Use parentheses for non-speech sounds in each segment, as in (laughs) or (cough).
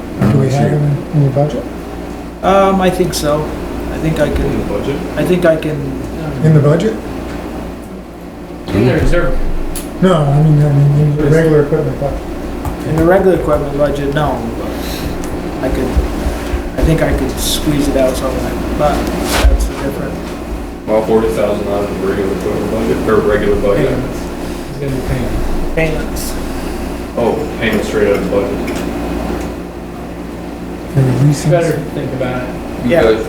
have in, in your budget? Um, I think so. I think I In the can, budget? I think I can, In the budget? In the reserve. No, I mean, I mean, in the regular equipment budget. in the regular equipment budget, no. but I could, I think I could squeeze it out somehow, but that's a different. Well, forty thousand out of the regular equipment budget, or regular budget. It's gonna be paying. Payments. Oh, paying straight out of the budget. for the leasing. Better think about it. Yeah. Because-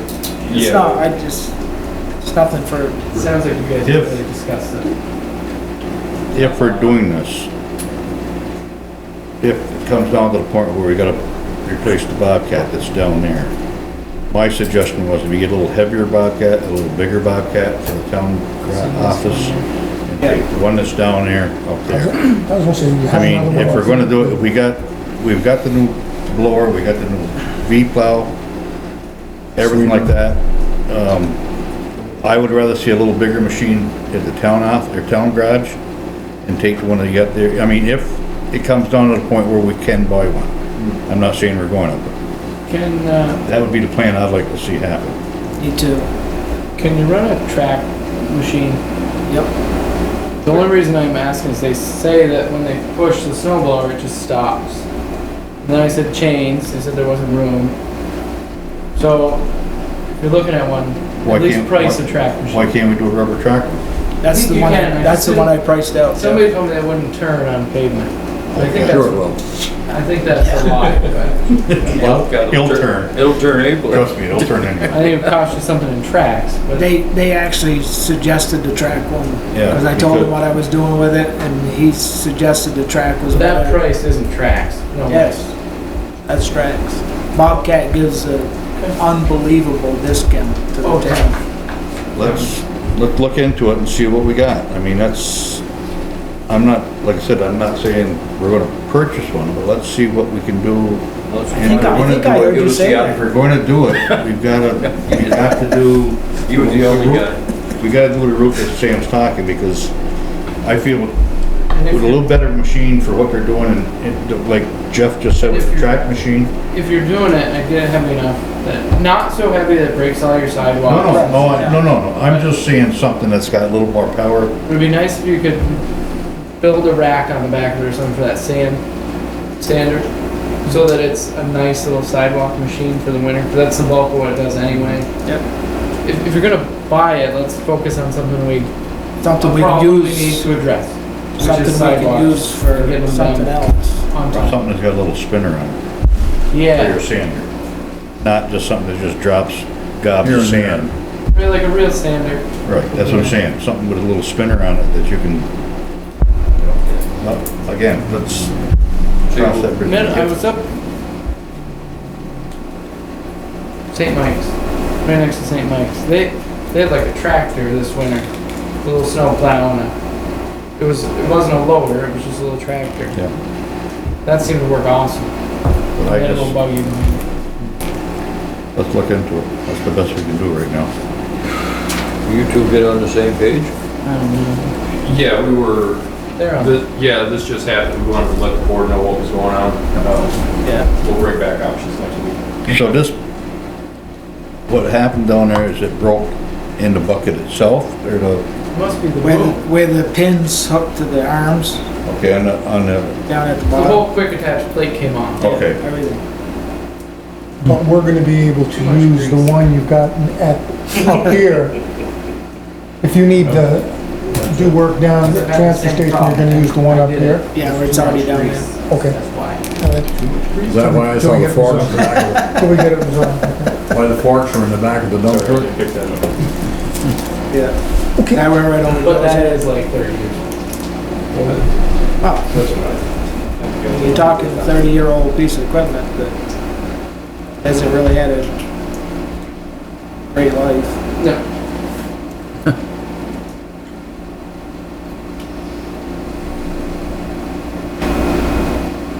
It's not, Yeah, I just, it's nothing for, It sounds like you guys Yep. really discussed it. if we're doing this, if it comes down to the point where we gotta replace the Bobcat that's down there, my suggestion was if you get a little heavier Bobcat, a little bigger Bobcat for the town office, and take the one that's down there up I was there. gonna say, you I have mean, another if we're one. gonna do it, we got, we've got the new blower, we got the new V plow, everything like that. Um, I would rather see a little bigger machine at the town off, their town garage, and take the one that you got there. I mean, if it comes down to the point where we can buy one. I'm not saying we're going to, Can, uh, but that would be the plan I'd like to see happen. need to, can you run a track machine? yep, The only reason I'm asking is they say that when they push the snow blower, it just stops. And then I said chains, they said there wasn't room. So, if you're looking at one, Why at least can't- price why- a track machine. Why can't we do a rubber tractor? that's think the you one, can, I that's the just- one I priced out. Somebody told me that wouldn't turn on pavement. I think Sure it that's, will. I think that's a lie, but Well, It'll turn. It'll turn April. Trust me, it'll turn anyway. I think it costs you something in tracks, but. They, they actually suggested the track one, Yeah, because I told him because- what I was doing with it, and he suggested the track was. That better. price isn't tracks. No Yes, that's tracks. Bobcat gives an unbelievable discount to the Oh, town. let's, let look into it and see what we got. I mean, that's, I'm not, like I said, I'm not saying we're gonna purchase one, but let's see what we can do. I think, I think I heard you say If that. we're gonna do it, we've gotta, (laughs) we have to do. You were the only guy. We gotta do the route that Sam's talking, because I feel with And a if little you're, better machine for what they're doing, and and like Jeff just said with the track machine, if you're doing it, and I get it heavy enough that not so heavy that it breaks all your no, sidewalks. no, no, I- no, no, no, I'm just saying something that's got a little more power. It'd be nice if you could build a rack on the back of it or something for that sand sander, so that it's a nice little sidewalk machine for the winter. 'cause that's the bulk of what it does anyway. Yep. If, if you're gonna buy it, let's focus on something we Something we can probably need use, to address, which something we is can sidewalks. use Get for them something done. else. on top. Something that's got a little spinner on it. for Yeah. your sander, not just something that just drops gobs Here of and there. sand. Really like a real sander. Right, that's what I'm saying, something with a little spinner on it that you can, you know, uh, again, let's cross that bridge. when we Man, I get- was up St. Mike's, right next to St. Mike's. They they had like a tractor this winter, a little snow plow on it. It was it wasn't a loader, it was just a little tractor. Yeah. That seemed to work awesome. But They I had a little just, buggy. behind it. let's look into it, that's the best we can do right now. You two get on the same page? I don't know. Yeah, we were, They're on. thi- yeah, this just happened. We wanted to let the board know what was going on. Uh, Yeah, We'll bring back options next week. So this, what happened down there is it broke in the bucket itself, or the, must be the where, the- boat. where the pins hook to the arms okay, on the, on the, down at the The bottom, whole quick attach plate came off. okay. everything. But we're gonna be able to Too much use the grease. one you've got at, up here. If you need to do work down at the transfer station, you're gonna use the one up here. Yeah, where it's already down there. Okay. That's why. Uh, Is that why I saw the (laughs) forks in the back Till we get it resolved. of, why the forks were in the back of the dump Sorry, truck? I picked that up. Yeah. Okay. That went right over But those that heads. is like 30 years old. Oh, you're talking thirty-year-old piece of equipment that hasn't really had a great life. No. (laughs)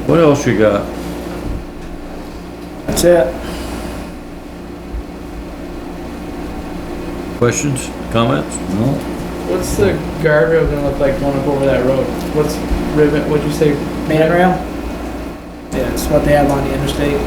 What else you got? That's it. Questions, comments? No. What's the guardrail gonna look like going up over that road? What's ribbon, what'd you say? Man rail? Yeah, it's what they have on the interstate.